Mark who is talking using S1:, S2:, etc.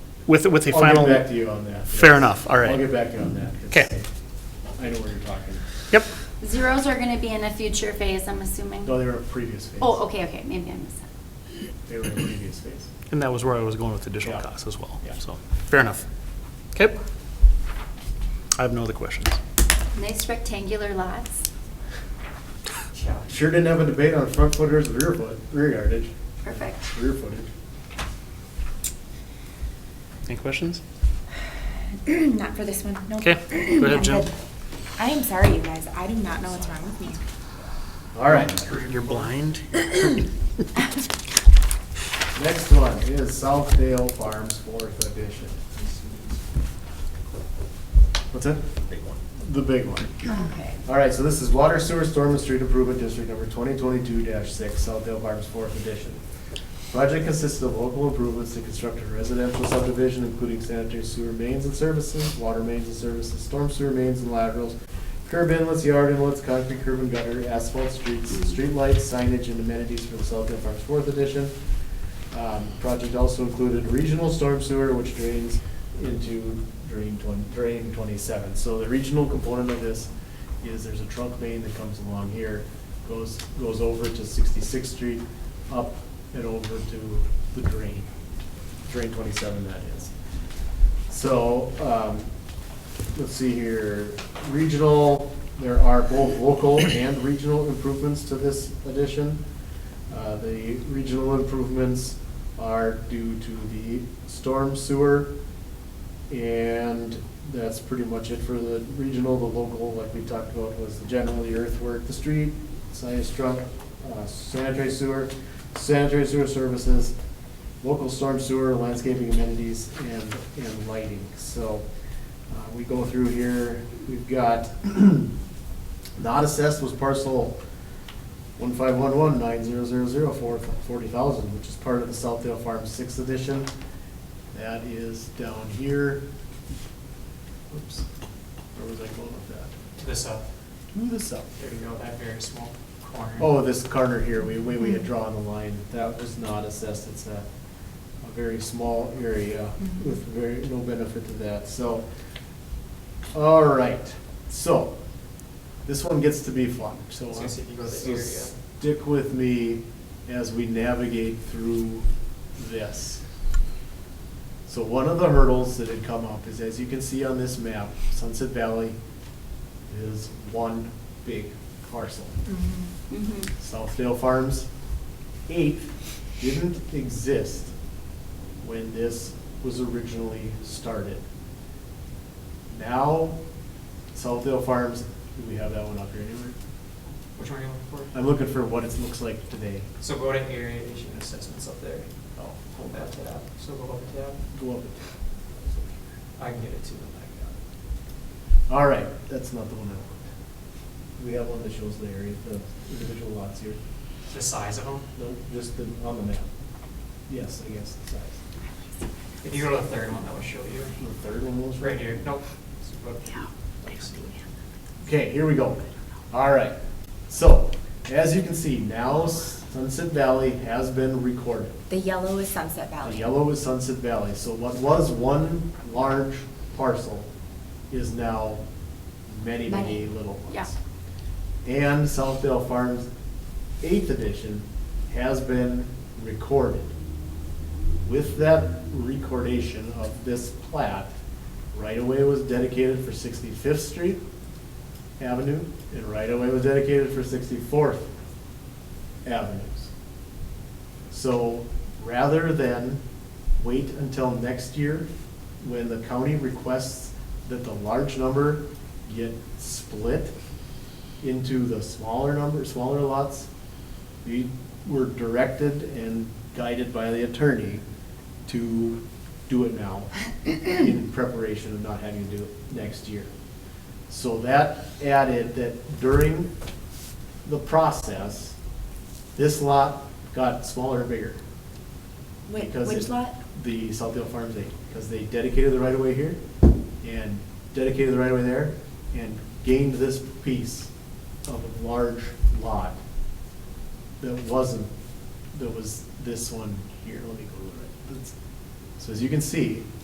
S1: with, with the
S2: I'll get back
S1: final,
S2: to you on that.
S1: fair
S2: yes.
S1: enough, all
S2: I'll
S1: right.
S2: get back to you on that. 'cause
S1: 'Kay.
S2: I know where you're talking.
S1: Yep,
S3: Zeros are gonna be in a future phase, I'm assuming?
S2: No, they were in previous phase.
S3: Oh, okay, okay, maybe I missed that.
S2: They were in previous phase.
S1: and that was where I was going with additional
S2: Yeah.
S1: costs as well,
S2: Yeah.
S1: so, fair enough. Okay. I have no other questions.
S3: Nice rectangular lots,
S2: Sure didn't have a debate on front foot versus rear foot, rear yardage,
S3: perfect.
S2: rear footage.
S1: Any questions?
S4: Not for this one, no.
S1: Okay, go ahead,
S4: I'm
S1: Jim.
S4: good. I am sorry, you guys, I do not know what's wrong with me.
S2: All right, Oh,
S1: You're blind?
S2: next one is Southdale Farms Fourth Edition. What's that? Big one. The big one.
S4: Okay.
S2: All right, so this is Water Sewer Storm and Street Improvement District Number 2022-6, Southdale Farms Fourth Edition. Project consisted of local improvements to construct a residential subdivision, including sanitary sewer mains and services, water mains and services, storm sewer mains and laterals, curb inlets, yard inlets, concrete curb and gutter, asphalt streets, streetlights, signage, and amenities for the Southdale Farms Fourth Edition. Um, Project also included regional storm sewer, which drains into drain twenty, drain twenty-seven. So the regional component of this is there's a trunk main that comes along here, goes, goes over to Sixty-Sixth Street, up and over to the drain, drain twenty-seven that is. So, um, let's see here, regional, there are both local and regional improvements to this addition. Uh, The regional improvements are due to the storm sewer, and that's pretty much it for the regional. The local, like we talked about, was the generally earthwork, the street, science truck, uh, sanitary sewer, sanitary sewer services, local storm sewer, landscaping amenities, and, and lighting. So uh, we go through here, we've got, not assessed was parcel one five one one nine zero zero zero four forty thousand, which is part of the Southdale Farm Sixth Edition. That is down here. Oops, where was I going with that?
S5: to this up.
S2: Move this up.
S5: There you go, that very small corner.
S2: Oh, this corner here, we, we, we had drawn the line, that was not assessed, it's a, a very small area with very, no benefit to that, so. All right, so, this one gets to be fun, so.
S5: So you said you go to the
S2: so
S5: area.
S2: Stick with me as we navigate through this. So one of the hurdles that had come up is, as you can see on this map, Sunset Valley is one big parcel.
S3: Mm-hmm.
S2: Southdale Farms eighth didn't exist when this was originally started. Now, Southdale Farms, do we have that one up here anywhere?
S5: Which one are you looking for?
S2: I'm looking for what it looks like today.
S5: So go to area issue and assessments up there.
S2: Oh,
S5: Hold that tab. So go up a tab.
S2: go up it.
S5: I can get it too. but
S2: All right, that's not the one I want. We have one that shows the area, the individual lots here.
S5: I got it. The size of them.
S2: No, just the, on the map. Yes, I guess, the size.
S5: If you go to the third one, that will show you.
S2: The third one was.
S5: Right here. Nope. So go up.
S2: Okay, here we go. All right. So, as you can see, now Sunset Valley has been recorded.
S4: The yellow is Sunset
S2: The
S4: Valley.
S2: yellow is Sunset Valley. So what was one large parcel is now many, many
S3: Many.
S2: little ones.
S3: Yeah.
S2: And Southdale Farms Eighth Edition has been recorded. With that recordation of this plat, right-of-way was dedicated for Sixty-Fifth Street Avenue, and right-of-way was dedicated for Sixty-Fourth Avenues. So rather than wait until next year, when the county requests that the large number get split into the smaller number, smaller lots, we were directed and guided by the attorney to do it now in preparation of not having to do it next year. So that added that during the process, this lot got smaller and bigger.
S4: Wait,
S2: because
S4: which
S2: it-
S4: lot?
S2: The Southdale Farms eight, because they dedicated the right of way here and dedicated the right of way there and gained this piece of a large lot that wasn't, that was this one here, let me go to the right. That's- So as you can see,